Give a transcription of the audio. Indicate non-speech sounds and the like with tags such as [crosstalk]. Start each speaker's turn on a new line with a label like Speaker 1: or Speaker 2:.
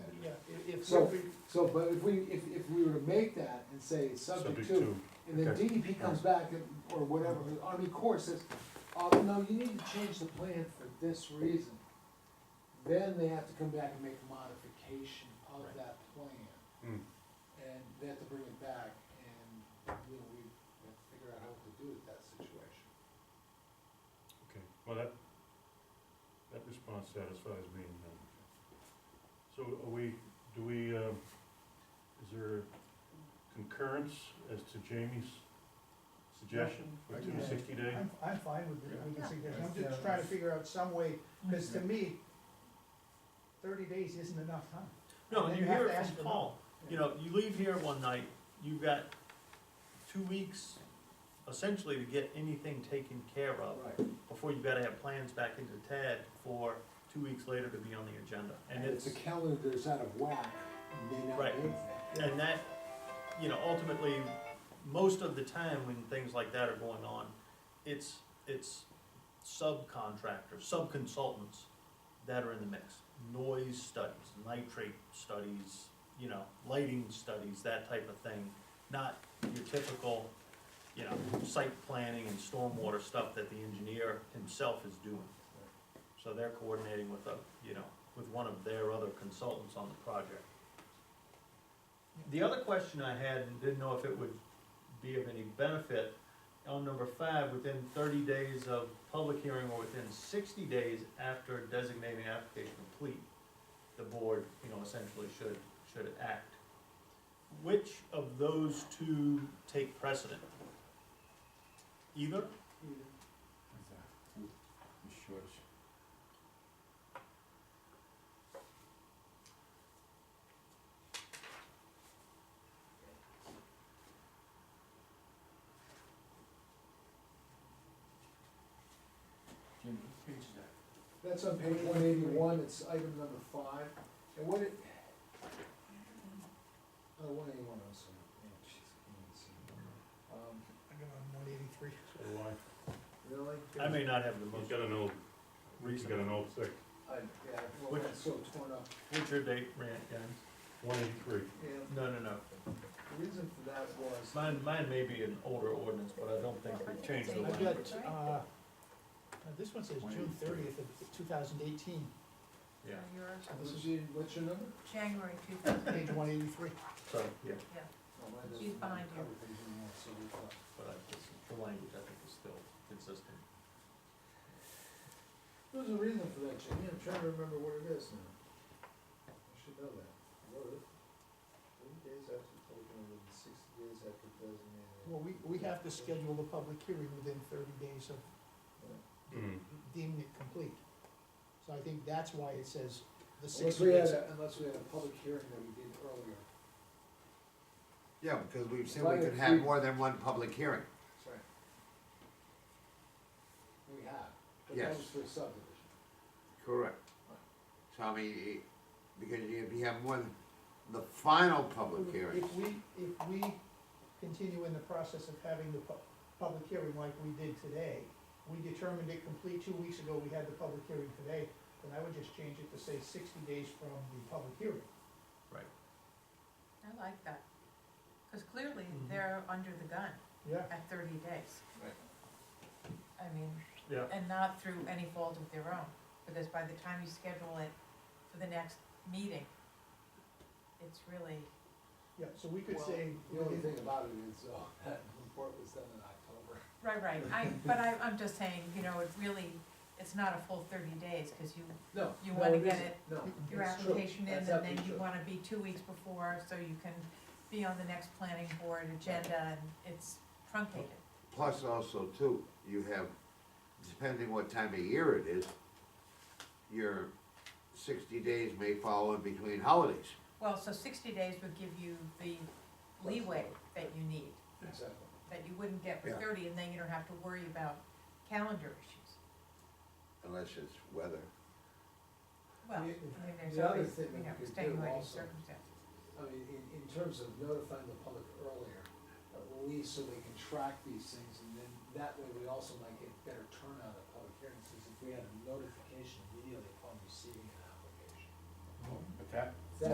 Speaker 1: It's
Speaker 2: So-
Speaker 1: what we-
Speaker 2: So, but if we, if, if we were to make that and say subject to, and then
Speaker 3: okay.
Speaker 2: DEP comes back and, or whatever, the Army Corps says, oh, no, you need to change the plan for this reason. Then they have to come back and make a modification of
Speaker 1: Right.
Speaker 2: that plan,
Speaker 3: Hmm.
Speaker 2: and they have to bring it back, and, you know, we have to figure out what to do with that situation.
Speaker 3: Okay, well, that, that response satisfies me. um, So are we, do we, um, is there concurrence as to Jamie's suggestion for
Speaker 1: I
Speaker 3: two
Speaker 1: guess.
Speaker 3: sixty day?
Speaker 4: I'm, I'm fine with it, with the
Speaker 1: Yeah.
Speaker 4: suggestion, I'm just trying to figure out some way, cause
Speaker 2: Mm-hmm.
Speaker 4: to me, thirty days isn't enough time.
Speaker 1: No,
Speaker 4: Then
Speaker 1: and
Speaker 4: you
Speaker 1: you
Speaker 4: have
Speaker 1: hear
Speaker 4: to
Speaker 1: it
Speaker 4: ask
Speaker 1: from
Speaker 4: for
Speaker 1: Paul, you know, you leave here one night, you've got two weeks essentially to get anything taken care of
Speaker 2: Right,
Speaker 1: before you've gotta have plans back into Tad for two weeks later to be on the agenda. And it's,
Speaker 2: the calendar that's out of whack, may not
Speaker 1: Right.
Speaker 2: be that.
Speaker 1: and that, you know, ultimately, most of the time when things like that are going on, it's, it's subcontractors, subconsultants that are in the mix. Noise studies, nitrate studies, you know, lighting studies, that type of thing, not your typical, you know, site planning and stormwater stuff that the engineer himself is doing. So they're coordinating with a, you know, with one of their other consultants on the project. The other question I had, and didn't know if it would be of any benefit, on number five, within thirty days of public hearing or within sixty days after designating application complete, the board, you know, essentially should, should act. Which of those two take precedent? Either?
Speaker 5: Jim, what page is that?
Speaker 2: That's on page one eighty-one, it's item number five, and what it. Oh, one eighty-one, I'm sorry, yeah, jeez, I can't even see it. Um,
Speaker 4: I got on one eighty-three.
Speaker 3: So do I.
Speaker 2: really?
Speaker 1: I may not have the
Speaker 3: He's
Speaker 1: most
Speaker 3: got an old, he's got
Speaker 1: recent.
Speaker 3: an old six,
Speaker 2: I, yeah, well,
Speaker 1: Which-
Speaker 2: it's so torn up,
Speaker 1: What's your date, Rand, guys?
Speaker 3: one eighty-three.
Speaker 2: and
Speaker 1: No, no, no.
Speaker 2: the reason for that was,
Speaker 1: Mine, mine may be an older ordinance, but I don't think we changed the
Speaker 4: I've
Speaker 1: language.
Speaker 4: got, uh, uh, this one says June
Speaker 5: 183.
Speaker 4: thirtieth of two thousand eighteen,
Speaker 1: Yeah,
Speaker 2: this is, your- what's your number?
Speaker 6: January two thousand,
Speaker 4: page one eighty-three.
Speaker 1: so, yeah,
Speaker 2: Oh, mine doesn't
Speaker 6: She's behind you.
Speaker 2: cover these anymore, so we thought-
Speaker 1: but I, just- the language I think is still consistent.
Speaker 2: There was a reason for that, Jimmy, I'm trying to remember what it is now. I should know that. What is it? Thirty days after taken, within sixty days after designated.
Speaker 4: Well, we, we have to schedule the public hearing within thirty days of
Speaker 3: Hmm.
Speaker 4: deeming it complete. So I think that's why it says the
Speaker 2: Unless
Speaker 4: sixty
Speaker 2: we had,
Speaker 4: days.
Speaker 2: a- unless we had a public hearing that we did earlier.
Speaker 7: Yeah, because we've said
Speaker 2: Right,
Speaker 7: we
Speaker 2: if
Speaker 7: could have
Speaker 2: we-
Speaker 7: more than one public hearing.
Speaker 2: Sorry. We have, but that was
Speaker 7: Yes.
Speaker 2: for a subdivision.
Speaker 7: Correct. So I mean, it- because if you have more than the final public hearing,
Speaker 4: If we, if we continue in the process of having the pu- public hearing like we did today, we determined it complete two weeks ago, we had the public hearing today, then I would just change it to say sixty days from the public hearing.
Speaker 6: I like that, because clearly they're under the gun
Speaker 4: Yeah.
Speaker 6: at thirty days.
Speaker 2: Right.
Speaker 6: I mean,
Speaker 1: Yeah.
Speaker 6: and not through any fault of their own, because by the time you schedule it for the next meeting, it's really,
Speaker 4: Yeah, so we could
Speaker 2: Well,
Speaker 4: say,
Speaker 2: The only thing about it is, uh, [laughs] that report was done in October.
Speaker 6: right, right, I, but I, I'm just saying, you know, it really, it's not a full thirty days, because you,
Speaker 2: No.
Speaker 6: You
Speaker 2: no,
Speaker 6: wanna
Speaker 2: it
Speaker 6: get
Speaker 2: isn't.
Speaker 6: it
Speaker 2: No.
Speaker 6: your
Speaker 2: it's true.
Speaker 6: application in,
Speaker 2: Mm-hmm. That's
Speaker 6: and
Speaker 2: absolutely
Speaker 6: then you
Speaker 2: true.
Speaker 6: wanna be two weeks before, so you can be on the next planning board agenda, and it's truncated.
Speaker 7: plus also too, you have, depending what time of year it is, your sixty days may fall in between holidays.
Speaker 6: Well, so sixty days would give you the leeway that you need,
Speaker 2: Exactly.
Speaker 6: that you wouldn't get for
Speaker 7: Yeah.
Speaker 6: thirty, and then you don't have to worry about calendar issues.
Speaker 7: Unless it's weather.
Speaker 6: Well, I
Speaker 2: Yeah,
Speaker 6: mean, there's
Speaker 2: the other
Speaker 6: always,
Speaker 2: thing
Speaker 6: you
Speaker 2: that
Speaker 6: know,
Speaker 2: we could do
Speaker 6: extenuating
Speaker 2: also-
Speaker 6: circumstances.
Speaker 2: I mean, in, in terms of notifying the public earlier, at least so they can track these things, and then that way we also might get better turnout at public hearings, because if we had a notification immediately upon receiving an application.
Speaker 5: But that,